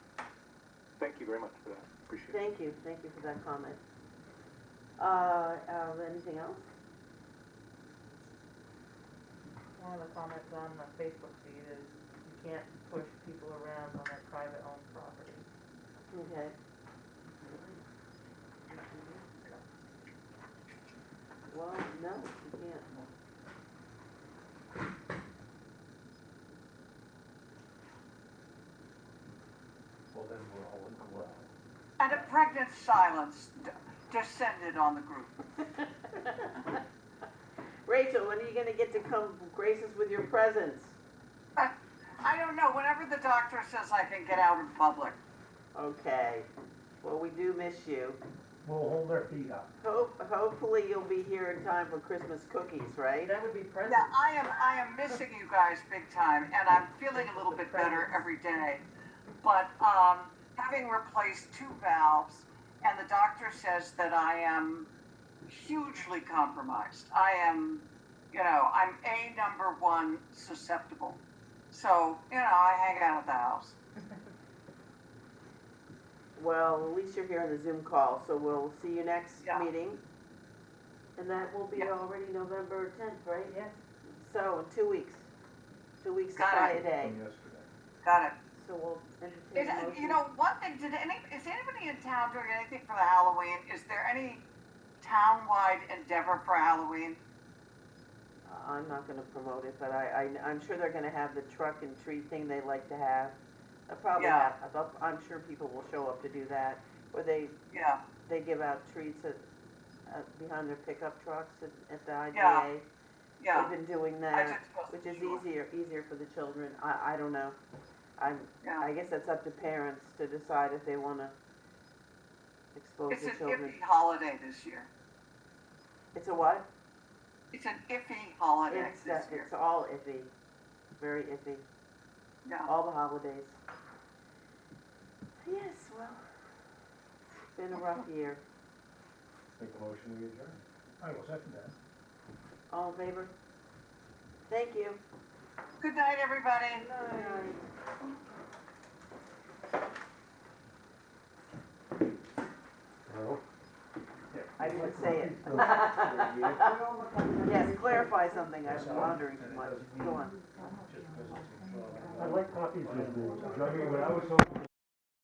you very much for that, appreciate it. Thank you, thank you for that comment. Uh, uh, anything else? One of the comments on the Facebook feed is you can't push people around on their private owned property. Okay. Well, no, you can't. Well, then we're all in collab. And a pregnant silence d- descended on the group. Rachel, when are you gonna get to come grace us with your presence? I don't know, whenever the doctor says I can get out in public. Okay, well, we do miss you. We'll hold our feet up. Hope, hopefully you'll be here in time for Christmas cookies, right? That would be present. Yeah, I am, I am missing you guys big time, and I'm feeling a little bit better every day. But, um, having replaced two valves, and the doctor says that I am hugely compromised. I am, you know, I'm a number one susceptible. So, you know, I hang out at the house. Well, at least you're here on the Zoom call, so we'll see you next Yeah. meeting. And that will be Yeah. already November tenth, right? Yes, So, in two weeks, two weeks Got it. Friday, From yesterday. Got it. so we'll entertain Is, a motion. you know, one thing, did any, is anybody in town doing anything for the Halloween? Is there any town-wide endeavor for Halloween? I- Uh, I'm not gonna promote it, but I, I, I'm sure they're gonna have the truck and tree thing they like to have. They'll Probably, Yeah. have- I'll- I'm sure people will show up to do that, or they, Yeah, they give out treats at, uh, behind their pickup trucks at, at the Yeah. IGA. yeah. They've been doing I that, just wasn't which is sure. easier, easier for the children, I, I don't know. I'm, Yeah. I guess that's up to parents to decide if they wanna expose It's the an children. iffy holiday this year. It's a what? It's an iffy holiday It's, uh, this year. it's all iffy, very iffy. Yeah. all the holidays. Yes, well, it's been a rough year. Make a motion to adjourn. I will second that. All in favor? Oh, Thank you. Good night, everybody. Hello? I didn't say it. Just Yes, clarify something, I was wondering too much. Go on. because it's. I'd like copies of the, when I was home,